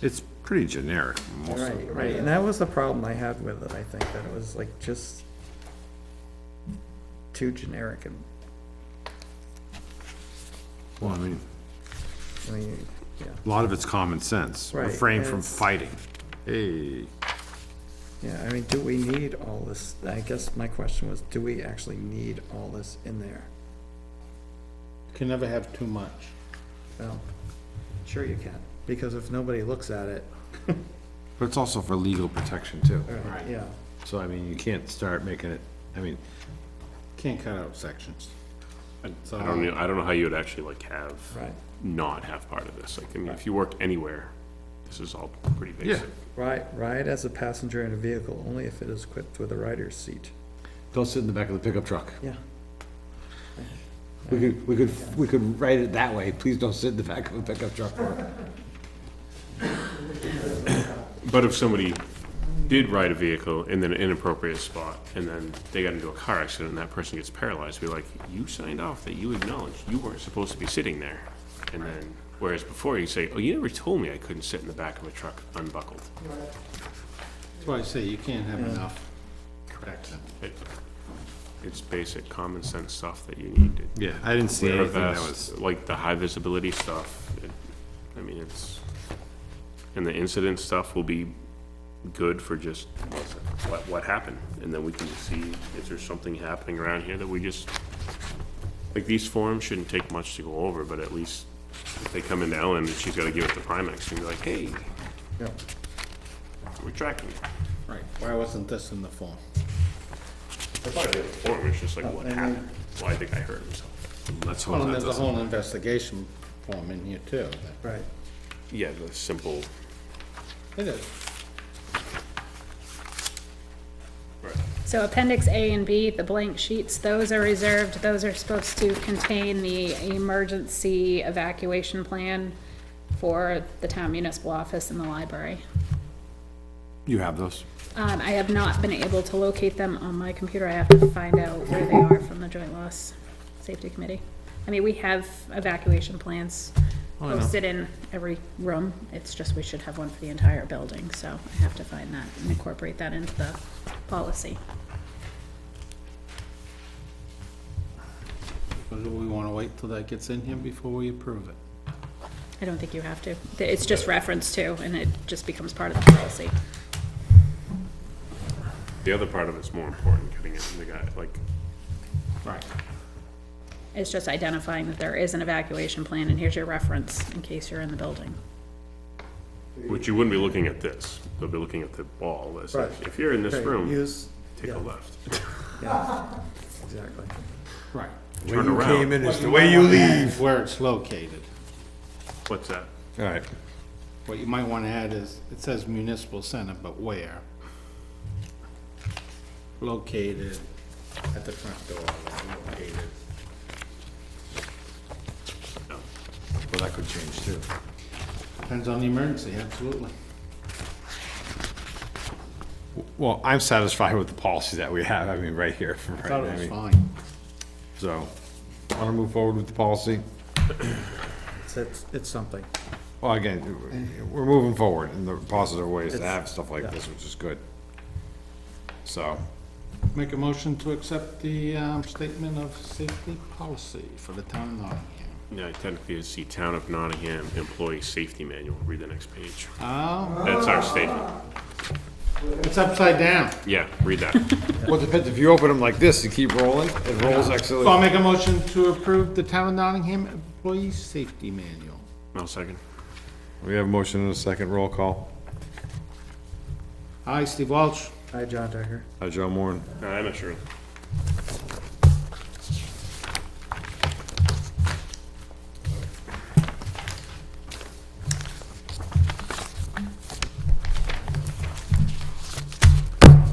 It's pretty generic. most of Right, right, and that was the problem I had with it, I think, that it was like just too generic and, it. Well, I mean, I mean, yeah, a lot of it's common sense. Right, Refrain from it's- fighting. Hey, yeah, I mean, do we need all this? I guess my question was, do we actually need all this in there? Can never have too much. Well, sure you can, because if nobody looks at it, but it's also for legal protection too. or- yeah, So I mean, you can't start making it, I mean, Can't cut out sections. I don't know, I don't know how you would actually like have, right, not have part of this, like, I mean, if you worked anywhere, this is all pretty yeah. basic. right, ride as a passenger in a vehicle only if it is equipped with a rider's seat. They'll sit in the back of the pickup truck. Yeah, We could, we could, we could write it that way. Please don't sit in the back of a pickup truck. But if somebody did ride a vehicle in an inappropriate spot, and then they got into a car accident, and that person gets paralyzed, be like, you signed off that you acknowledged you weren't supposed to be sitting there. And then, whereas before, you say, oh, you never told me I couldn't sit in the back of a truck unbuckled. That's why I say you can't have enough. Correct. It- It's basic common sense stuff that you need to Yeah, I didn't see wear a anything that was, vest, like the high visibility stuff. it- I mean, it's, and the incident stuff will be good for just what's- what, what happened. And then we can see if there's something happening around here that we just, like, these forms shouldn't take much to go over, but at least if they come into Ellen and she's gotta give it to Primex and be like, hey, yeah, we're tracking. Right. Why wasn't this in the form? That's why they have a form, it's just like, what and then- happened? Well, I think I hurt myself. let's Oh, Well, hope and that there's a doesn't. whole investigation form in here too. that- right, Yeah, the simple, It is. So Appendix A and B, the blank sheets, those are reserved, those are supposed to contain the emergency evacuation plan for the town municipal office and the library. You have those? Um, I have not been able to locate them on my computer, I have to find out where they are from the Joint Loss Safety Committee. I mean, we have evacuation plans posted in every room, it's just we should have one for the entire building, so I have to find that and incorporate that into the policy. But do we wanna wait till that gets in here before we approve it? I don't think you have to. Th- It's just reference to, and it just becomes part of the policy. the other part of it's more important, getting it in the guy, like, Right. It's just identifying that there is an evacuation plan, and here's your reference in case you're in the building. Which you wouldn't be looking at this, you'll be looking at the wall that says, Right. if you're in this Okay, room, use- take yeah. a left. yeah, exactly, Right. Turn around. is leave. Where it's located. What's that? All right. What you might wanna add is, it says municipal center, but where? Located at the front door, located. Well, that could change too. Depends on the emergency, absolutely. Well, I'm satisfied with the policy that we have, I mean, right here for right Thought now, I it was mean, fine. So, want to move forward with the policy? it's, it's it's something. Well, again, we're moving forward in the positive ways to have stuff like this, which is good. So, Make a motion to accept the um, statement of safety policy for the town of Nottingham. Yeah, technically, it's the Town of Nottingham Employee Safety Manual, read the next page. Oh, That's our statement, it's upside down. yeah, read that. well, it depends, if you open them like this, you keep rolling, it rolls So I'll excellently. make a motion to approve the town of Nottingham employee safety manual. No second. We have a motion and a second roll call. Aye, Steve Walsh. Hi, John Decker. Hi, Joe Moore. No, I'm not sure.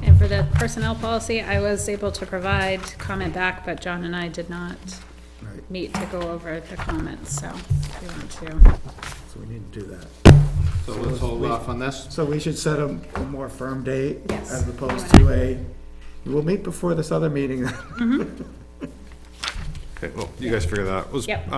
And for the personnel policy, I was able to provide comment back, but John and I did not Right. meet to go over the comments, so we want to. So we need to do that. So let's hold off on this. So we should set a a more firm date? Yes. As opposed to a, we'll meet before this other meeting. Okay, well, you guys figure that out. Let's- uh, Yep.